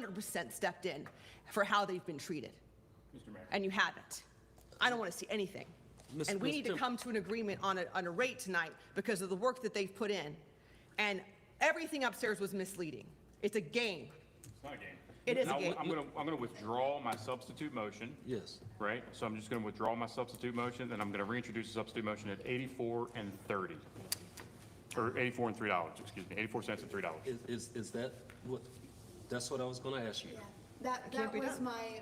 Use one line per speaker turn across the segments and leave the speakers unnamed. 100% stepped in for how they've been treated.
Mr. Mayor.
And you haven't. I don't want to see anything.
Miss-
And we need to
Mr.
come to an agreement on a, on a rate tonight because of the work that they've put in. And everything upstairs was misleading. It's a game.
It's not a game.
It is a
Now,
game.
I'm gonna, I'm gonna withdraw my substitute motion,
Yes.
right? So I'm just gonna withdraw my substitute motion, and I'm gonna reintroduce the substitute motion at 84 and 30. Or 84 and $3, excuse me, 84 cents and $3.
Is, is, is that what, that's what I was gonna ask you.
That,
can't
that
be
was
done.
my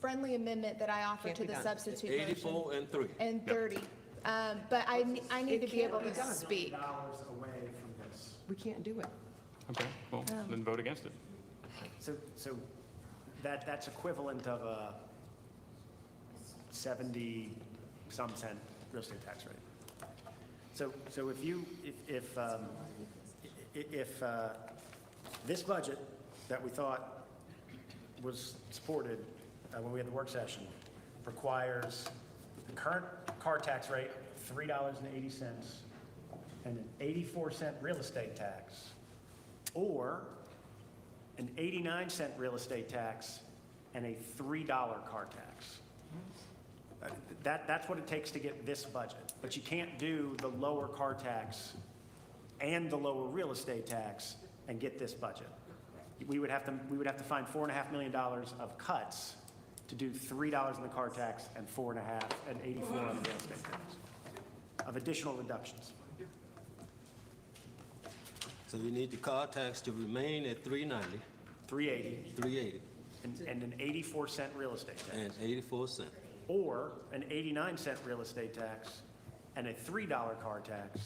friendly amendment that I offered
Can't
to
be
the
done.
substitute motion.
Eighty-four and three.
And thirty, um, but I, ne- I need to be able to speak.
dollars away from this.
We can't do it.
Okay, well,
Oh.
then vote against it.
So, so that, that's equivalent of a 70-some cent real estate tax rate. So, so if you, if- if, um, i- i- if uh, this budget that we thought was supported uh, when we had the work session requires the current car tax rate, $3.80, and an 84 cent real estate tax, or an 89 cent real estate tax, and a $3 car tax. Uh, That, that's what it takes to get this budget. But you can't do the lower car tax and the lower real estate tax and get this budget. We would have to, we would have to find four and a half million dollars of cuts to do three dollars in the car tax and four and a half, and 84 on the real estate tax, of additional reductions.
So you need the car tax to remain at three ninety,
380
three eighty,
and, and an 84 cent real estate tax.
and eighty-four cent.
or an 89 cent real estate tax and a $3 car tax,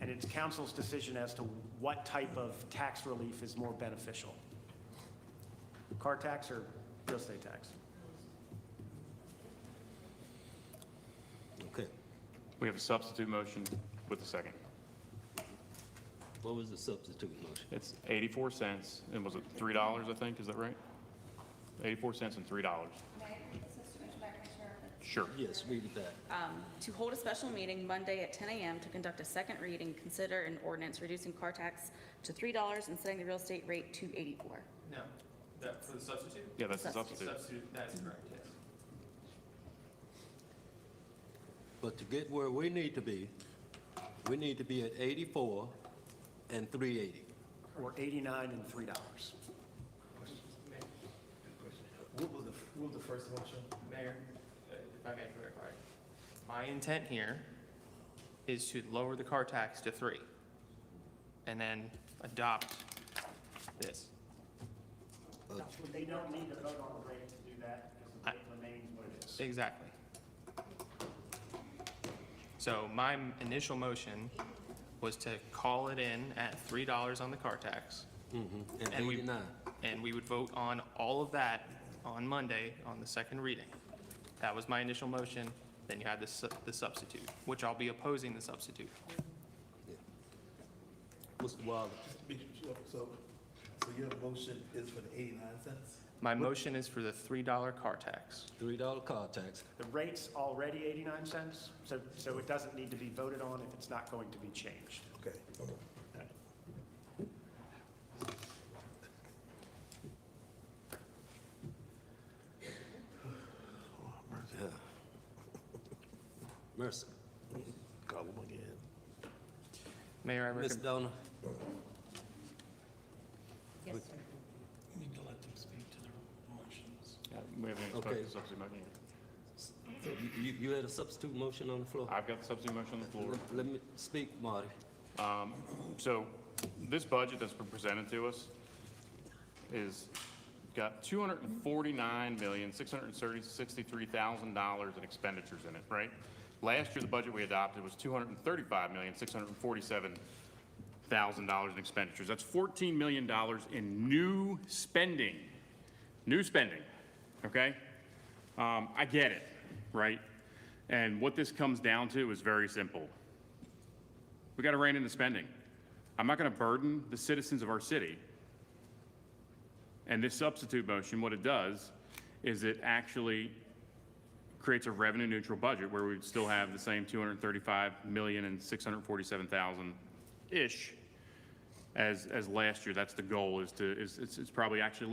and it's council's decision as to what type of tax relief is more beneficial. Car tax or real estate tax?
Okay.
We have a substitute motion with a second.
What was the substitute motion?
It's 84 cents, and was it $3, I think, is that right? 84 cents and $3. Sure.
Yes, read it back.
to hold a special meeting Monday at 10 a.m. to conduct a second reading, consider an ordinance reducing car tax to $3 and setting the real estate rate to 84.
No, that, for the substitute?
Yeah, that's the
Substitute.
substitute.
Substitute, that's correct, yes.
But to get where we need to be, we need to be at eighty-four and three eighty.
Or 89 and $3?
What was the, what was the first motion? Mayor, uh, if I may clarify. My intent here is to lower the car tax to three and then adopt this.
They don't need to vote on the rate to do that, because the rate remains what it is.
Exactly. So my m- initial motion was to call it in at three dollars on the car tax.
And
and we-
eighty-nine.
And we would vote on all of that on Monday on the second reading. That was my initial motion, then you had the su- the substitute, which I'll be opposing the substitute.
Mr. Wilder,
So, so your motion is for the eighty-nine cents?
My motion is for the three dollar car tax.
three dollar car tax.
The rate's already 89 cents, so, so it doesn't need to be voted on if it's not going to be changed.
Okay.
Yeah. Mercy.
Call them again.
Mayor, I
Ms.
recommend,
Donna,
You need to let them speak to their motions.
Yeah, We haven't
Okay.
exposed the substitute motion yet.
you- you, you had a substitute motion on the floor?
I've got the substitute motion on the floor.
Let- Let me speak, Marty.
So this budget that's been presented to us is got two hundred and forty-nine million, six hundred and sixty-three thousand dollars in expenditures in it, right? Last year, the budget we adopted was two hundred and thirty-five million, six hundred and forty-seven thousand dollars in expenditures. That's fourteen million dollars in new spending, new spending, okay? Um, I get it, right? And what this comes down to is very simple. We got to rein in the spending. I'm not going to burden the citizens of our city. And this substitute motion, what it does is it actually creates a revenue neutral budget where we'd still have the same 235 million and 647,000 ish as, as last year. That's the goal is to, is, it's, it's probably actually a